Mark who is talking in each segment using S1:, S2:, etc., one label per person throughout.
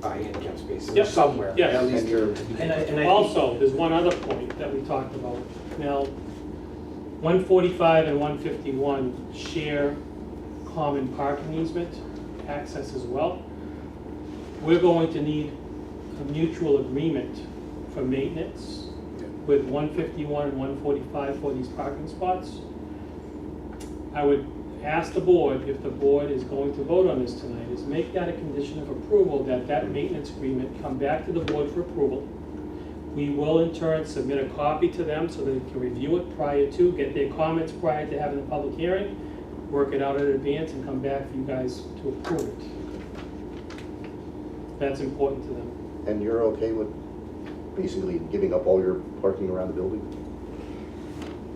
S1: buy handicap
S2: Yep.
S1: spaces somewhere.
S2: Yes.
S1: At least they're.
S2: And I, and I.
S1: Also,
S2: Also, there's one other point that we talked about. Now, one forty-five and one fifty-one share common parking easement access as well. We're going to need a mutual agreement for maintenance with one fifty-one and one forty-five for these parking spots. I would ask the board, if the board is going to vote on this tonight, is make that a condition of approval, that that maintenance agreement come back to the board for approval. We will in turn submit a copy to them so they can review it prior to, get their comments prior to having the public hearing, work it out in advance and come back for you guys to approve it. That's important to them.
S3: And you're okay with basically giving up all your parking around the building?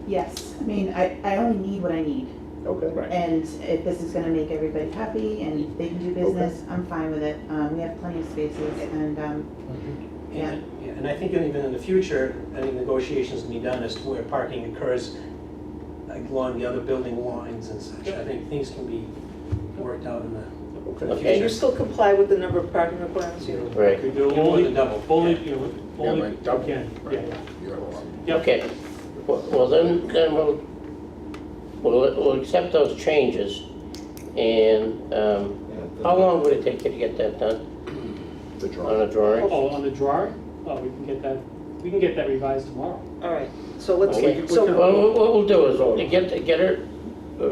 S4: Yes, I mean, I, I only need what I need.
S3: Okay.
S5: Right.
S4: And if this is gonna make everybody happy and they can do business, I'm fine with it. Um, we have plenty of spaces and, um, Yeah.
S6: And, yeah, and I think even in the future, any negotiations can be done as to where parking occurs like, along the other building lines and such. I think things can be worked out in the,
S3: Okay.
S7: And you still comply with the number of parking requirements you
S5: Right,
S2: We do
S6: more
S2: only,
S6: than double.
S2: only, you know, only,
S8: like double,
S2: again,
S8: right.
S2: yeah.
S8: You're allowed.
S2: Yep,
S5: okay. Well- Well, then, then we'll, we'll, we'll accept those changes. And, um, how long would it take you to get that done
S3: The
S5: on a
S3: drawing.
S5: drawing?
S2: oh, on the drawing, oh, we can get that, we can get that revised tomorrow.
S7: All right, so let's,
S5: Okay,
S7: so.
S5: so what, what we'll do is, we'll get, get it, uh,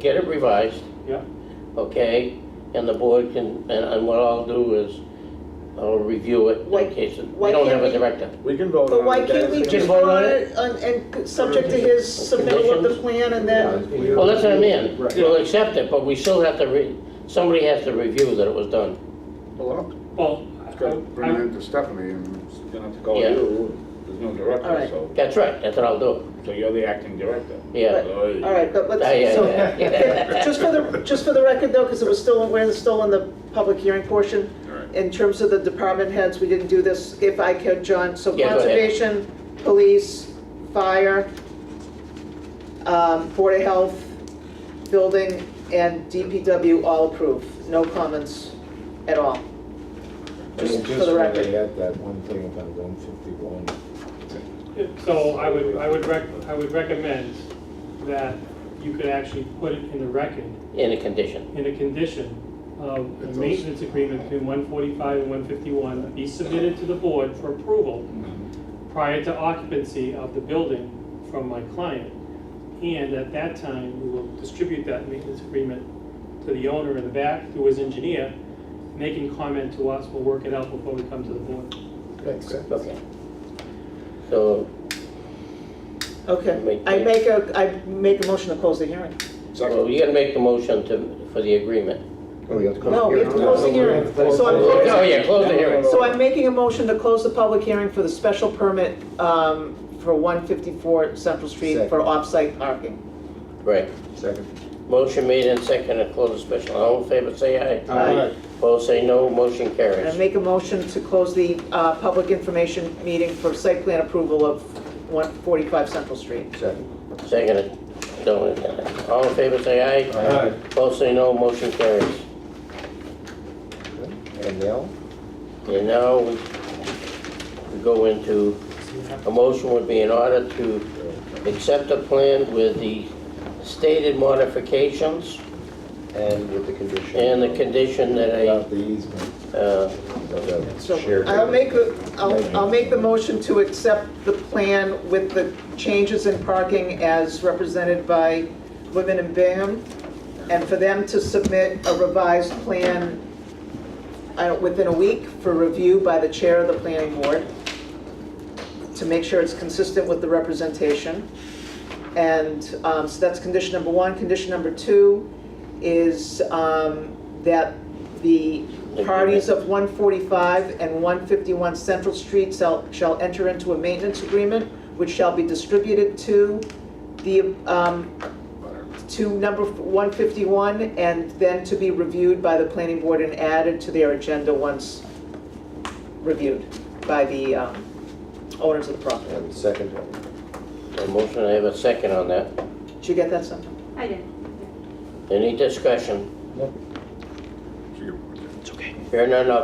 S5: get it revised,
S2: Yep,
S5: okay? And the board can, and, and what I'll do is, I'll review it
S7: Why-
S5: in case it- we
S7: why
S5: don't
S7: can't
S5: have a
S7: we-
S5: director.
S8: We can vote on it.
S7: But why can't we
S5: Just
S8: guys.
S7: just
S5: vote
S7: vote
S5: on
S7: on
S5: it?
S7: it and, and subject to his submittal of the plan and then?
S5: Well, that's what I mean,
S8: Right.
S5: we'll accept it, but we still have to re, somebody has to review that it was done.
S8: Well, I'll
S2: well,
S8: just
S2: I-
S8: gotta bring
S2: I-
S8: it to Stephanie and she's Oh, gonna have to call
S5: Yeah.
S8: you. There's no
S7: All
S8: director,
S7: right.
S8: so,
S5: That's right, that's what I'll do,
S8: so you're the acting director.
S5: yeah.
S8: Oy.
S7: All right, but
S5: Yeah,
S7: let's,
S5: yeah,
S7: so,
S5: yeah, yeah.
S7: just for the, just for the record though, because it was still, we're still in the public hearing portion.
S8: All right.
S7: In terms of the department heads, we didn't do this, if I could, John, so
S5: Yeah, go ahead.
S7: conservation, police, fire, um, Board of Health, building, and DPW all approve, no comments at all. Just for the record.
S9: add that one thing about one fifty-one.
S2: So I would, I would rec, I would recommend that you could actually put it in the record,
S5: In a condition,
S2: in a condition of a maintenance agreement between one forty-five and one fifty-one be submitted to the board for approval prior to occupancy of the building from my client. And at that time, we will distribute that maintenance agreement to the owner in the back, through his engineer. They can comment to us, we'll work it out before we come to the board.
S5: okay. So,
S7: Okay,
S5: Make-
S7: I make a, I make a motion to close the hearing.
S5: well,
S8: Second.
S5: you gotta make the motion to, for the agreement.
S3: Oh, you have to close
S7: No, we have to
S3: here.
S7: close the hearing. So I'm
S5: Oh,
S7: closing,
S5: yeah, close the hearing,
S7: so I'm making a motion to close the public hearing for the special permit, um, for one fifty-four Central Street for
S3: Second.
S7: off-site parking.
S5: right.
S3: Second.
S5: Motion made and seconded, to close the special, all in favor, say aye.
S7: Aye.
S5: Opposed, say no, motion
S7: And I
S5: carries.
S7: make a motion to close the, uh, public information meeting for site plan approval of one forty-five Central Street.
S3: Second.
S5: Seconded, Don't- all in favor, say aye. Opposed, say no, motion carries.
S3: And now?
S5: And now we we go into, a motion would be in order to accept the plan with the stated modifications
S3: And with the condition.
S5: and the condition that
S9: About
S5: I,
S9: the easement.
S5: uh,
S3: condition.
S7: So
S3: Shared.
S7: I'll make, the- I'll, I'll make the motion to accept the plan with the changes in parking as represented by Women in Bingham, and for them to submit a revised plan uh, within a week for review by the chair of the planning board, to make sure it's consistent with the representation. And um, so that's condition number one. Condition number two is um, that the parties of 145 and 151 Central Street shall shall enter into a maintenance agreement, which shall be distributed to the, um, to number 151, and then to be reviewed by the planning board and added to their agenda once reviewed by the um, owners of the property.
S3: And second.
S5: a motion, I have a second on that.
S7: Did you get that, Sandra?
S10: I did.
S5: Any discussion?
S8: She can-
S5: Here none, I'll